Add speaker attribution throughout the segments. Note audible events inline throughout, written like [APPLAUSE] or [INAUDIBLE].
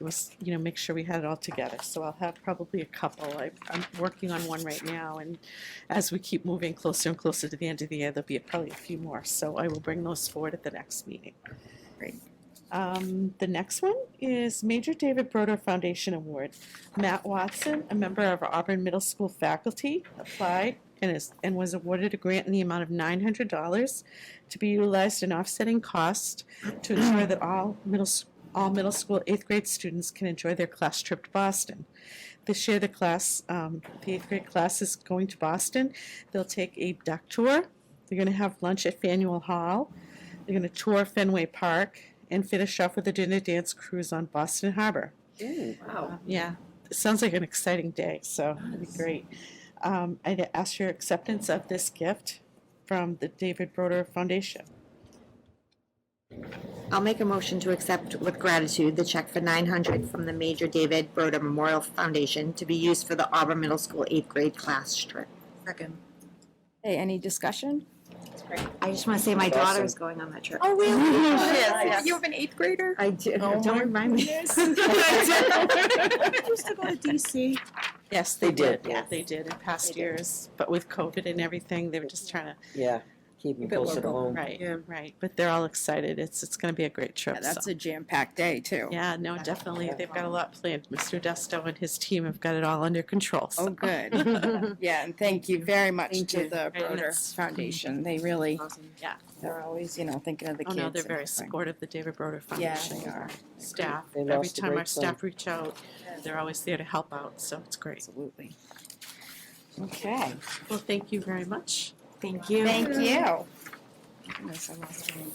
Speaker 1: was, you know, make sure we had it all together. So I'll have probably a couple. I, I'm working on one right now, and as we keep moving closer and closer to the end of the year, there'll be probably a few more. So I will bring those forward at the next meeting.
Speaker 2: Great.
Speaker 1: Um, the next one is Major David Broder Foundation Award. Matt Watson, a member of Auburn Middle School faculty, applied and is, and was awarded a grant in the amount of nine hundred dollars to be utilized in offsetting costs to ensure that all middle, s- all middle school eighth grade students can enjoy their class trip to Boston. This year, the class, um, the eighth grade class is going to Boston. They'll take a duck tour. They're gonna have lunch at Faneuil Hall. They're gonna tour Fenway Park and finish off with a dinner dance cruise on Boston Harbor.
Speaker 2: Ooh, wow.
Speaker 1: Yeah, it sounds like an exciting day, so it'll be
Speaker 2: Nice.
Speaker 1: great. Um, I'd ask your acceptance of this gift from the David Broder Foundation.
Speaker 2: I'll make a motion to accept with gratitude the check for nine hundred from the Major David Broder Memorial Foundation to be used for the Auburn Middle School eighth grade class trip. Second.
Speaker 3: Hey, any discussion?
Speaker 2: I just want to say my
Speaker 4: That's
Speaker 2: daughter
Speaker 4: awesome.
Speaker 2: is going on that trip.
Speaker 3: Oh, really?
Speaker 2: Yes, [LAUGHS] yes.
Speaker 3: You have an eighth grader?
Speaker 2: I do,
Speaker 3: Oh
Speaker 2: don't remind me.
Speaker 3: Used to go to DC.
Speaker 1: Yes,
Speaker 4: They did.
Speaker 1: Yeah, they did in past years, but with COVID and everything, they were just trying to,
Speaker 4: Yeah, keep them
Speaker 3: Keep it
Speaker 4: close at
Speaker 3: local.
Speaker 4: home.
Speaker 1: right,
Speaker 3: Yeah.
Speaker 1: right. But they're all excited. It's, it's gonna be a great
Speaker 3: Yeah,
Speaker 1: trip, so.
Speaker 3: that's a jam-packed day, too.
Speaker 1: Yeah, no,
Speaker 2: That's
Speaker 1: definitely.
Speaker 2: awesome.
Speaker 1: They've got a lot planned. Mr. Desto and his team have got it all under control,
Speaker 3: Oh,
Speaker 1: so.
Speaker 3: good.
Speaker 1: [LAUGHS]
Speaker 3: Yeah, and thank you very much
Speaker 2: Thank
Speaker 3: to
Speaker 2: you.
Speaker 3: the
Speaker 1: And
Speaker 3: Broder
Speaker 1: it's-
Speaker 3: Foundation. They really,
Speaker 1: Yeah.
Speaker 3: they're always, you know, thinking of the
Speaker 1: Oh,
Speaker 3: kids.
Speaker 1: no, they're
Speaker 3: and
Speaker 1: very
Speaker 3: everything.
Speaker 1: supportive, the David Broder
Speaker 3: Yeah,
Speaker 1: Foundation.
Speaker 3: they are,
Speaker 1: staff.
Speaker 4: They
Speaker 1: Every
Speaker 4: lost a
Speaker 1: time
Speaker 4: great
Speaker 1: our staff reach out, they're always there to help out, so it's great.
Speaker 3: absolutely. Okay,
Speaker 1: Well, thank you very much.
Speaker 2: [LAUGHS] Thank you.
Speaker 3: thank you. Goodness, I lost my-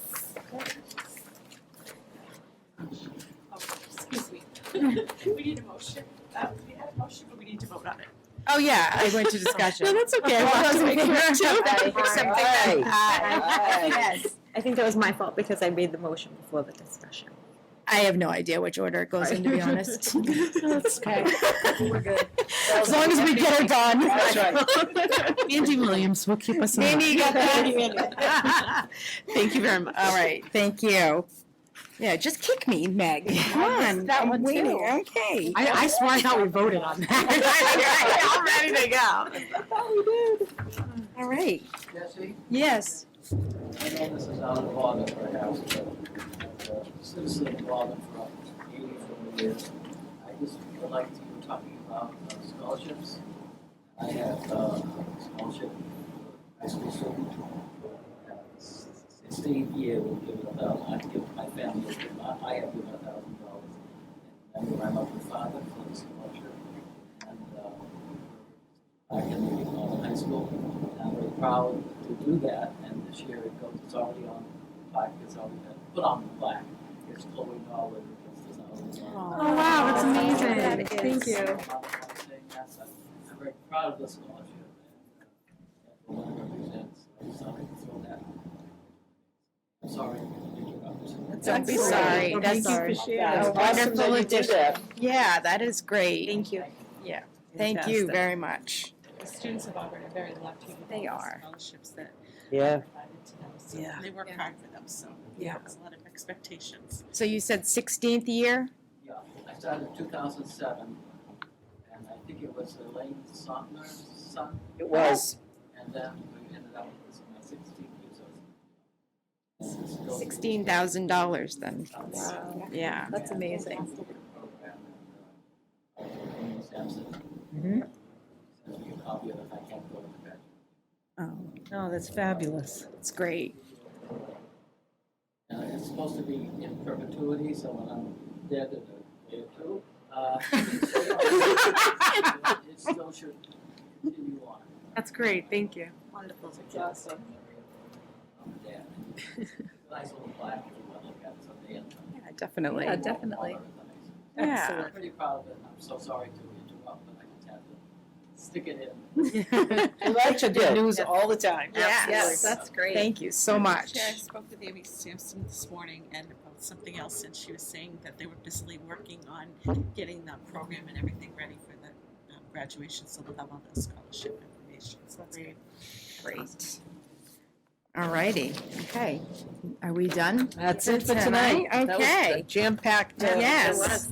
Speaker 1: Excuse me. We need a motion. Uh, We had a motion, but we need to vote on it.
Speaker 3: Oh, yeah, [LAUGHS] I went to
Speaker 1: No,
Speaker 3: discussion.
Speaker 1: that's [LAUGHS] okay. We'll
Speaker 3: [LAUGHS]
Speaker 1: have to make it too.
Speaker 3: Something
Speaker 4: Aye.
Speaker 3: that-
Speaker 2: Yes, I think that was my fault because I made the motion before the discussion.
Speaker 3: I have no idea which order it goes in, to be [LAUGHS] honest.
Speaker 1: That's okay.
Speaker 2: We're good.
Speaker 3: As long as we get it done.
Speaker 4: That's right.
Speaker 1: Andy Williams will keep us on.
Speaker 3: Maybe you got that?
Speaker 1: Thank you very much.
Speaker 3: All right, thank you. Yeah, just kick me, Meg. Come on.
Speaker 1: that
Speaker 3: I'm
Speaker 1: one
Speaker 3: waiting.
Speaker 1: too. [LAUGHS]
Speaker 3: Okay. [LAUGHS]
Speaker 2: I, I swear I thought we voted on that.
Speaker 3: I'm ready to go. All right,
Speaker 5: Jesse,
Speaker 3: yes.
Speaker 5: I know this is not involvement for a house, but uh, citizen involvement for eighty-four years. I just feel like you were talking about uh, scholarships. I have uh, a scholarship for high school student. Uh, s- Sixteenth year, we've given a thousand, I've given, my family, has given- I I have given a thousand dollars. And I'm around with father for the scholarship. And uh, I can leave on high school. And I'm very proud to do that, and this year it goes, it's already on the plaque, it's already been put on the plaque. It's Chloe Nolan, it's designed.
Speaker 3: Oh,
Speaker 2: wow, that's amazing.
Speaker 3: Thank
Speaker 5: you. I'm very proud of this scholarship. and, uh, and what it represents. I'm sorry to throw that. I'm sorry. to interrupt.
Speaker 3: Don't be sorry. That's
Speaker 4: It's
Speaker 3: a
Speaker 4: awesome that
Speaker 3: wonderful
Speaker 4: you do
Speaker 3: addition.
Speaker 4: that.
Speaker 3: Yeah, that is great. Thank
Speaker 2: you.
Speaker 3: Yeah, thank you very much.
Speaker 1: The students of Auburn are very lucky with all
Speaker 3: They
Speaker 1: the
Speaker 3: are.
Speaker 1: scholarships that
Speaker 4: Yeah,
Speaker 1: provided to them. So
Speaker 3: [LAUGHS] Yeah.
Speaker 1: they work hard for them, so
Speaker 3: Yeah.
Speaker 1: there's a lot of expectations.
Speaker 3: So you said 16th year?
Speaker 5: Yeah, I started in two thousand seven, and I think it was Elaine Sotner's son,
Speaker 4: it was.
Speaker 5: and then we ended up with this, my sixteen years old.
Speaker 3: $16,000 then.
Speaker 5: Wow.
Speaker 3: Yeah.
Speaker 2: That's amazing.
Speaker 3: Oh,
Speaker 6: No, that's fabulous.
Speaker 3: it's great.
Speaker 5: Uh, it's supposed to be in perpetuity, so when I'm dead in a day or two, uh, [LAUGHS] it still should continue on.
Speaker 6: That's great, thank you.
Speaker 2: Wonderful.
Speaker 5: It's a job, so- I'm dead. Nice little plaque if you want to look at it someday.
Speaker 3: Yeah, definitely.
Speaker 6: Yeah, definitely.
Speaker 3: Yeah.
Speaker 5: I'm pretty proud of it, and I'm so sorry to interrupt, but I just had to stick it in.
Speaker 4: We like to get news all the time.
Speaker 3: Yes.
Speaker 2: That's great.
Speaker 3: Thank you so much.
Speaker 1: Chair, I spoke with Amy Sampson this morning and about something else, and she was saying that they were busily working on getting the program and everything ready for the um, graduation, so they'll have all the scholarship information, so that's great.
Speaker 3: Great. All righty, okay. Are we done?
Speaker 4: That's it for
Speaker 3: Tonight,
Speaker 4: tonight. That was
Speaker 3: okay.
Speaker 4: a Jam-packed. uh,
Speaker 3: Yes.